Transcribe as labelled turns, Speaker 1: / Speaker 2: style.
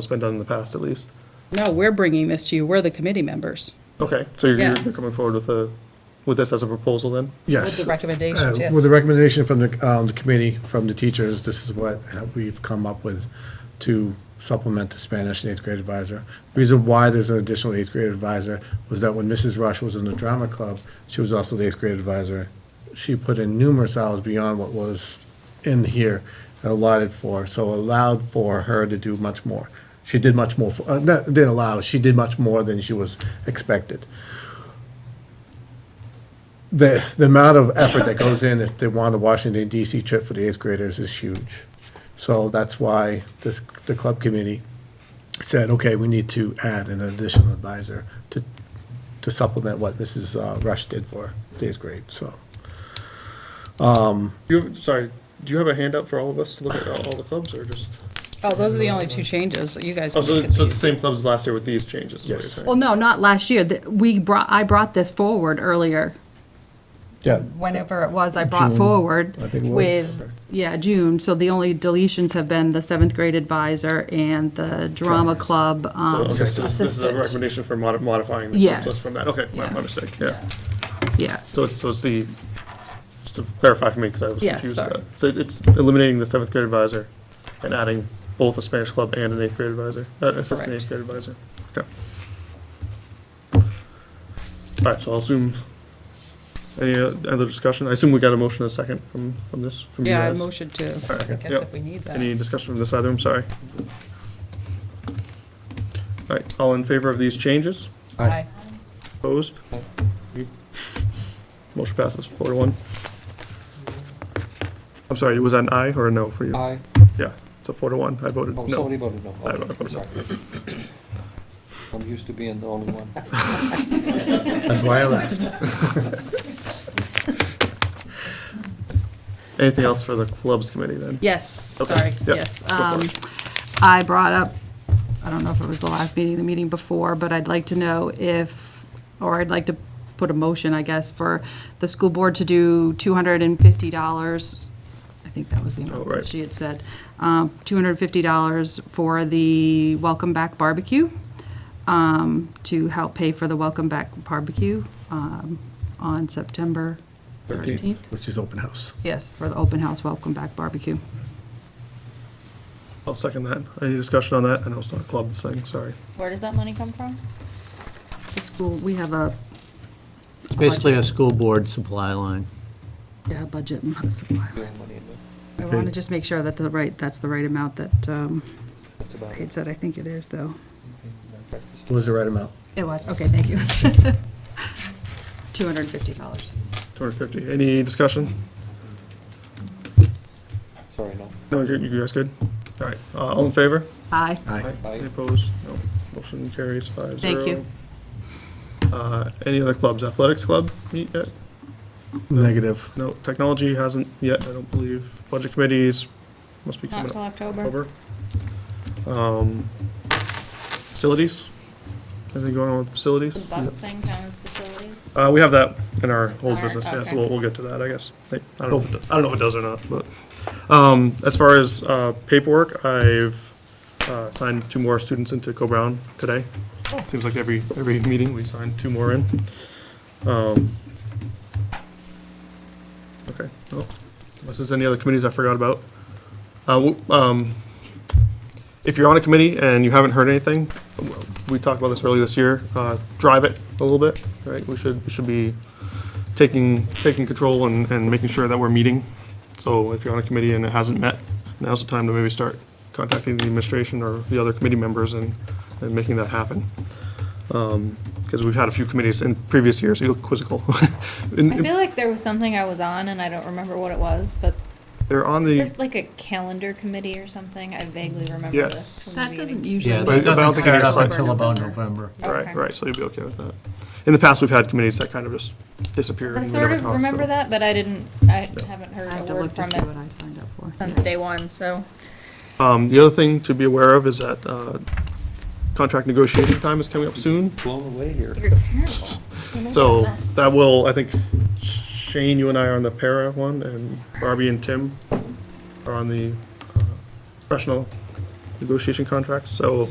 Speaker 1: It's been done in the past, at least.
Speaker 2: No, we're bringing this to you. We're the committee members
Speaker 1: Okay, so you're,
Speaker 2: Yeah.
Speaker 1: you're coming forward with a, with this as a proposal then?
Speaker 2: with
Speaker 3: Yes.
Speaker 2: the
Speaker 3: Uh,
Speaker 2: recommendations, yes.
Speaker 3: With the recommendation from the, um, the committee, from the teachers, this is what we've come up with to supplement the Spanish and eighth grade advisor. Reason why there's an additional eighth grade advisor was that when Mrs. Rush was in the drama club, she was also the eighth grade advisor. She put in numerous hours beyond what was in here allotted for, so allowed for her to do much more. She did much more, for- uh, not, didn't allow, she did much more than she was expected the the amount of effort that goes in if they want a Washington DC trip for the eighth graders is huge. So that's why this, the club committee said, okay, we need to add an additional advisor to, to supplement what Mrs. uh, Rush did for the eighth grade, so.
Speaker 1: You, sorry, do you have a handout for all of us to look at all all the clubs or just?
Speaker 2: Oh, those are the only two changes. You guys.
Speaker 1: Oh,
Speaker 2: can
Speaker 1: so
Speaker 2: look
Speaker 1: it's
Speaker 2: at
Speaker 1: so it's the
Speaker 2: these.
Speaker 1: same clubs as last year with these changes? is what you're
Speaker 3: Yes.
Speaker 1: saying?
Speaker 2: Well, no, not last year. Th- We brought, I brought this forward earlier,
Speaker 3: Yeah,
Speaker 2: whenever it was I brought
Speaker 3: June,
Speaker 2: forward
Speaker 3: I think it was.
Speaker 2: with, yeah, June. So the only deletions have been the seventh grade advisor and the drama club
Speaker 1: So,
Speaker 2: um,
Speaker 1: okay, so this this is a
Speaker 2: assistant.
Speaker 1: recommendation for modi- modifying the
Speaker 2: Yes.
Speaker 1: clubs list from that, okay, my
Speaker 2: Yeah.
Speaker 1: my mistake, yeah.
Speaker 2: Yeah,
Speaker 1: So it's, so it's the, just to clarify for me, because I was
Speaker 2: Yeah,
Speaker 1: confused.
Speaker 2: sorry.
Speaker 1: about- So it's eliminating the seventh grade advisor and adding both a Spanish club and an eighth grade advisor, uh, assistant
Speaker 2: Correct.
Speaker 1: eighth grade advisor, okay. All right, so I'll assume, any uh, other discussion? I assume we got a motion and a second from, from this, from you
Speaker 2: yeah, I
Speaker 1: guys?
Speaker 2: motioned to, so I
Speaker 1: Alright,
Speaker 2: guess
Speaker 1: yep.
Speaker 2: if we need that.
Speaker 1: Any discussion from this either, I'm sorry. All right, all in favor of these changes?
Speaker 2: Aye.
Speaker 1: Opposed? Motion passes four to one. I'm sorry, was that an aye or a no for you?
Speaker 4: Aye.
Speaker 1: Yeah, it's a four to one, I voted
Speaker 4: Oh,
Speaker 1: no.
Speaker 4: somebody voted no.
Speaker 1: I voted no.
Speaker 4: Sorry. I'm used to being the only one.
Speaker 3: that's why I left.
Speaker 1: Anything else for the clubs committee then?
Speaker 2: Yes,
Speaker 1: Okay,
Speaker 2: sorry,
Speaker 1: yeah,
Speaker 2: yes.
Speaker 1: go for
Speaker 2: Um,
Speaker 1: it.
Speaker 2: I brought up, I don't know if it was the last meeting, the meeting before, but I'd like to know if, or I'd like to put a motion, I guess, for the school board to do $250, I think that was the
Speaker 1: Oh,
Speaker 2: amount
Speaker 1: right.
Speaker 2: that she had said, um, $250 for the Welcome Back Barbecue, um, to help pay for the Welcome Back Barbecue um, on September 13th.
Speaker 3: Which is open house.
Speaker 2: Yes, for the open house Welcome Back Barbecue.
Speaker 1: I'll second that. Any discussion on that? I know it's not a clubs thing, sorry.
Speaker 5: Where does that money come from?
Speaker 2: The school, we have a
Speaker 6: It's basically a school board supply line.
Speaker 2: Yeah, budget and supply.
Speaker 4: Doing money in the,
Speaker 2: I want to just make sure that the right, that's the right amount that um,
Speaker 4: that's about
Speaker 2: Paige
Speaker 4: it.
Speaker 2: said, I think it is, though.
Speaker 3: It was the right amount.
Speaker 2: It was, okay, thank you. $250.
Speaker 1: 250. Any discussion?
Speaker 4: Sorry, no.
Speaker 1: No, you you guys good? All right, uh, all in favor?
Speaker 2: Aye.
Speaker 3: Aye.
Speaker 4: Aye.
Speaker 1: Any opposed? No. Motion carries five zero.
Speaker 2: Thank you.
Speaker 1: Uh, Any other clubs? Athletics club meet yet?
Speaker 3: Negative.
Speaker 1: No, technology hasn't yet, I don't believe. Budget committees must be
Speaker 5: Not
Speaker 1: coming
Speaker 5: till
Speaker 1: up.
Speaker 5: October.
Speaker 1: October. Um, Facilities? Anything going on with facilities?
Speaker 5: The bus thing counts as facilities?
Speaker 1: Uh, we have that in our whole
Speaker 5: Sorry,
Speaker 1: business, yeah, so
Speaker 5: okay.
Speaker 1: we'll, we'll get to that, I guess. I I don't know if, it do- I don't know if it does or not, but, um, as far as, uh, paperwork, I've, uh, signed two more students into Co-Brown today. Seems like every, every meeting, we sign two more in. Um, Okay, well, unless there's any other committees I forgot about. Uh, w- um, if you're on a committee and you haven't heard anything, we talked about this earlier this year, uh, drive it a little bit, right? We should, we should be taking, taking control and, and making sure that we're meeting. So if you're on a committee and it hasn't met, now's the time to maybe start contacting the administration or the other committee members and, and making that happen. Because we've had a few committees in previous years, you look quizzical. In-
Speaker 5: I feel like there was something I was on and I don't remember what it was, but
Speaker 1: They're on the,
Speaker 5: there's like a calendar committee or something. I vaguely remember
Speaker 1: Yes.
Speaker 5: this. from the
Speaker 2: That
Speaker 5: meeting.
Speaker 2: doesn't
Speaker 6: Yeah,
Speaker 2: usually.
Speaker 1: But I
Speaker 6: that
Speaker 1: don't
Speaker 6: doesn't
Speaker 1: think it
Speaker 6: start
Speaker 1: gets
Speaker 6: up
Speaker 1: like-
Speaker 6: until about November.
Speaker 1: right,
Speaker 5: Okay.
Speaker 1: right, so you'd be okay with that. In the past, we've had committees that kind of just disappear.
Speaker 5: I
Speaker 1: and we
Speaker 5: sort
Speaker 1: never
Speaker 5: of
Speaker 1: talk, so-
Speaker 5: remember that, but I didn't, I
Speaker 1: Yeah.
Speaker 5: haven't
Speaker 2: I
Speaker 5: heard
Speaker 2: have
Speaker 5: a
Speaker 2: to
Speaker 5: word
Speaker 2: look to
Speaker 5: from
Speaker 2: see what
Speaker 5: it
Speaker 2: I signed up for.
Speaker 5: since day one, so.
Speaker 1: Um, the other thing to be aware of is that, uh, contract negotiation time is coming up soon.
Speaker 4: Blown away here.
Speaker 5: You're terrible. Mm-hmm.
Speaker 1: So that will, I think Shane, you and I are on the para one and Barbie and Tim are on the uh, professional negotiation contracts, so